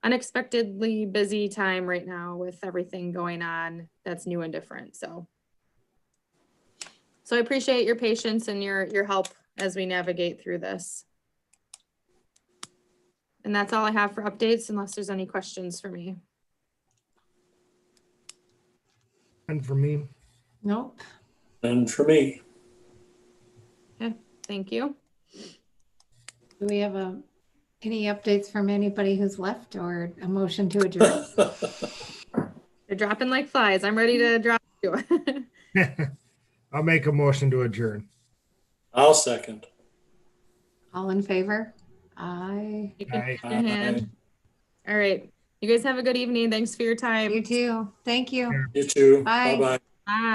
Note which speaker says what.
Speaker 1: unexpectedly busy time right now with everything going on that's new and different, so. So I appreciate your patience and your, your help as we navigate through this. And that's all I have for updates unless there's any questions for me.
Speaker 2: And for me,
Speaker 3: Nope.
Speaker 4: And for me,
Speaker 1: Thank you.
Speaker 3: Do we have a, any updates from anybody who's left or a motion to adjourn?
Speaker 1: They're dropping like flies. I'm ready to drop you.
Speaker 2: I'll make a motion to adjourn.
Speaker 4: I'll second.
Speaker 3: All in favor? Aye.
Speaker 1: You can-
Speaker 2: Aye.
Speaker 1: Mhm. All right. You guys have a good evening. Thanks for your time.
Speaker 3: You too. Thank you.
Speaker 4: You too.
Speaker 3: Bye.
Speaker 4: Bye-bye.
Speaker 1: Bye.